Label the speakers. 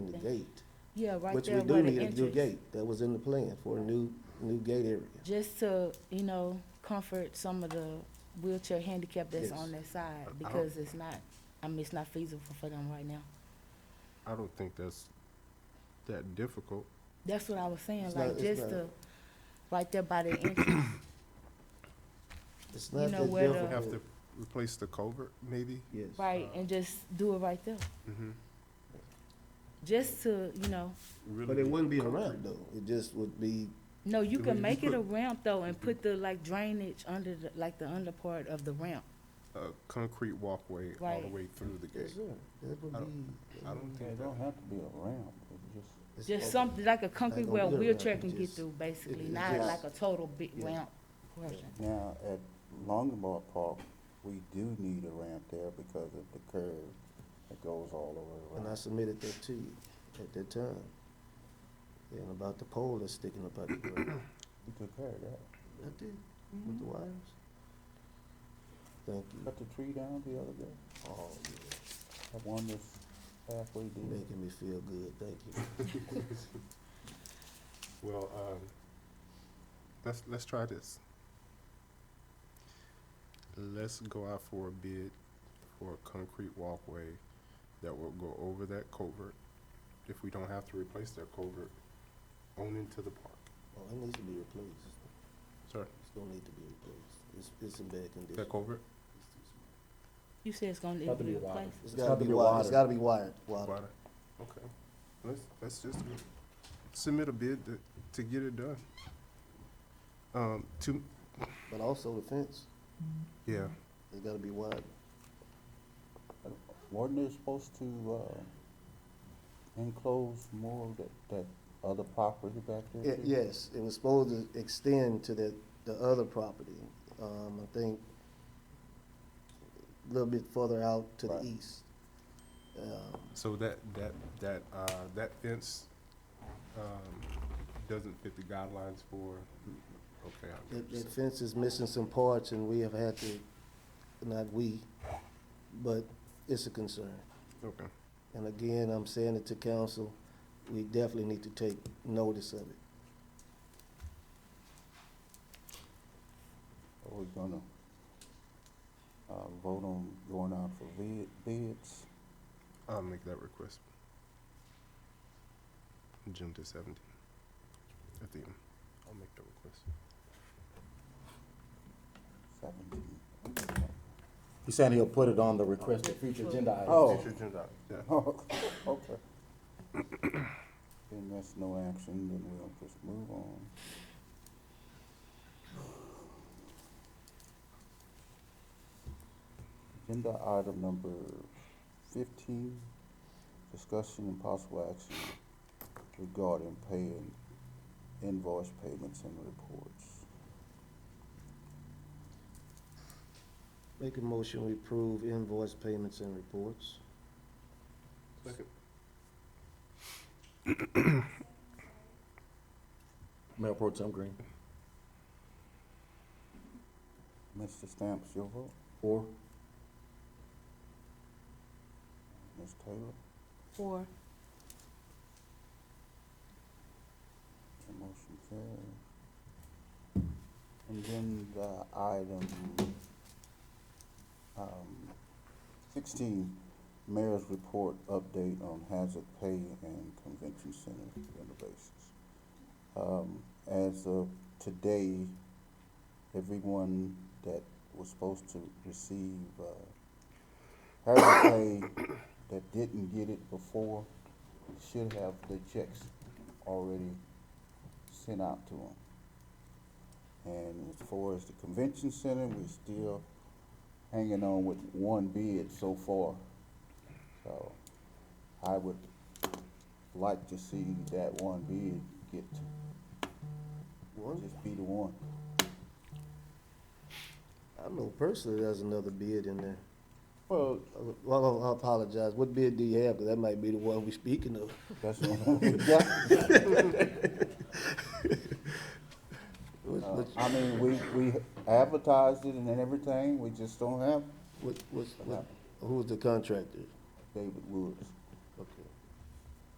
Speaker 1: gate,
Speaker 2: Yeah, right
Speaker 1: which
Speaker 2: there
Speaker 1: we
Speaker 2: where
Speaker 1: do
Speaker 2: the
Speaker 1: need a new
Speaker 2: entrance.
Speaker 1: gate. That was in the plan for a new, new gate area.
Speaker 2: Just to, you know, comfort some of the wheelchair handicap that's
Speaker 1: Yes.
Speaker 2: on that side, because it's not, I mean, it's not feasible for them right now.
Speaker 3: I don't think that's that difficult.
Speaker 2: That's what I was saying,
Speaker 1: It's not-
Speaker 2: like,
Speaker 1: it's
Speaker 2: just
Speaker 1: not-
Speaker 2: to, right there by the entrance,
Speaker 1: It's
Speaker 2: You
Speaker 1: not
Speaker 2: know
Speaker 1: that
Speaker 2: where the-
Speaker 3: We have
Speaker 1: difficult.
Speaker 3: to replace the culvert, maybe?
Speaker 1: Yes.
Speaker 2: right, and just do it right there.
Speaker 3: Mhm.
Speaker 2: Just to, you know,
Speaker 1: But it wouldn't be a ramp though. It just would be,
Speaker 2: no, you
Speaker 3: Then we
Speaker 2: can
Speaker 3: just
Speaker 2: make it
Speaker 3: put-
Speaker 2: a ramp though, and put the, like, drainage under the, like, the under part of the ramp.
Speaker 3: A concrete walkway all the
Speaker 2: Right.
Speaker 3: way through the
Speaker 1: yes,
Speaker 3: gate.
Speaker 1: sir. That would
Speaker 3: I
Speaker 1: be.
Speaker 3: don't- I don't
Speaker 4: Yeah,
Speaker 3: think
Speaker 4: It
Speaker 3: that,
Speaker 4: don't have to be a ramp, it's just,
Speaker 1: it's
Speaker 2: Just
Speaker 1: open.
Speaker 2: something, like a concrete
Speaker 1: gonna
Speaker 2: where a
Speaker 1: be a ramp,
Speaker 2: wheelchair
Speaker 1: it
Speaker 2: can get
Speaker 1: just-
Speaker 2: through, basically,
Speaker 1: it
Speaker 2: not
Speaker 1: just-
Speaker 2: like a total big
Speaker 1: Yeah.
Speaker 2: ramp. portion.
Speaker 4: now, at Longmont Park, we do need a ramp there because of the curve that goes all over
Speaker 1: And
Speaker 4: the
Speaker 1: I
Speaker 4: road.
Speaker 1: submitted that to you at that time. And about the pole that's sticking up out the ground.
Speaker 4: You took care of that.
Speaker 1: I did, with
Speaker 2: Mm-hmm.
Speaker 1: the wires. Thank you.
Speaker 4: Cut the tree down the other day,
Speaker 1: Oh, yeah.
Speaker 4: that one was halfway
Speaker 1: You're
Speaker 4: dead.
Speaker 1: making me feel good, thank you.
Speaker 3: well, um, let's, let's try this. Let's go out for a bid for a concrete walkway that will go over that culvert. If we don't have to replace that culvert, on into the park.
Speaker 1: Oh, it needs to be replaced.
Speaker 3: Sir,
Speaker 1: It's gonna need to be replaced. It's, it's in bad condition.
Speaker 3: that culvert?
Speaker 2: You said it's gonna
Speaker 5: Probably
Speaker 2: be
Speaker 5: a while.
Speaker 2: replaced.
Speaker 1: It's gotta be wired, it's gotta be wired, wired.
Speaker 3: Water. Okay, let's, let's just submit a bid to, to get it done. Um, to,
Speaker 1: But also the fence,
Speaker 3: yeah,
Speaker 1: it's gotta be wired.
Speaker 4: Wasn't it supposed to, uh, enclose more of that, that other property back there?
Speaker 1: It- Yes, it was supposed to extend to the, the other property, um, I think, a little bit further out to the
Speaker 4: Right.
Speaker 1: east. Um,
Speaker 3: so that, that, that, uh, that fence, um, doesn't fit the guidelines for, okay, I
Speaker 1: That, that
Speaker 3: understand.
Speaker 1: fence is missing some parts and we have had to, not we, but it's a concern.
Speaker 3: Okay,
Speaker 1: And again, I'm saying it to council, we definitely need to take notice of it.
Speaker 4: Are we gonna, uh, vote on going out for bid, bids?
Speaker 3: I'll make that request. June the seventeenth, at the, end. I'll make that request.
Speaker 4: Seventeen.
Speaker 5: He said he'll put it on the requested future agenda item.
Speaker 4: Oh.
Speaker 3: Future agenda. Yeah,
Speaker 4: Oh, okay. Then that's no action, then we'll just move on. Agenda item number fifteen, discussion and possible action regarding paying invoice payments and reports.
Speaker 1: Make a motion, we approve invoice payments and reports.
Speaker 3: Second.
Speaker 5: Mayor Pro Tem Green,
Speaker 4: Mr. Stamps, your vote?
Speaker 5: four.
Speaker 4: Ms. Taylor?
Speaker 2: Four,
Speaker 4: The motion carries. And then the item, um, sixteen, mayor's report update on hazard pay and convention center renovations. Um, as of today, everyone that was supposed to receive, uh, hazard pay that didn't get it before should have the checks already sent out to them. And as far as the convention center, we're still hanging on with one bid so far. So I would like to see that one bid get,
Speaker 1: One,
Speaker 4: just be the one.
Speaker 1: I know personally there's another bid in there.
Speaker 4: Well,
Speaker 1: Well, I apologize. What bid do you have? 'Cause that might be the one we speaking of.
Speaker 4: that's what we got.
Speaker 1: What,
Speaker 4: Uh,
Speaker 1: what,
Speaker 4: I mean, we, we advertised it and then everything, we just don't have
Speaker 1: what, what, what- who's the contractor?
Speaker 4: David Woods.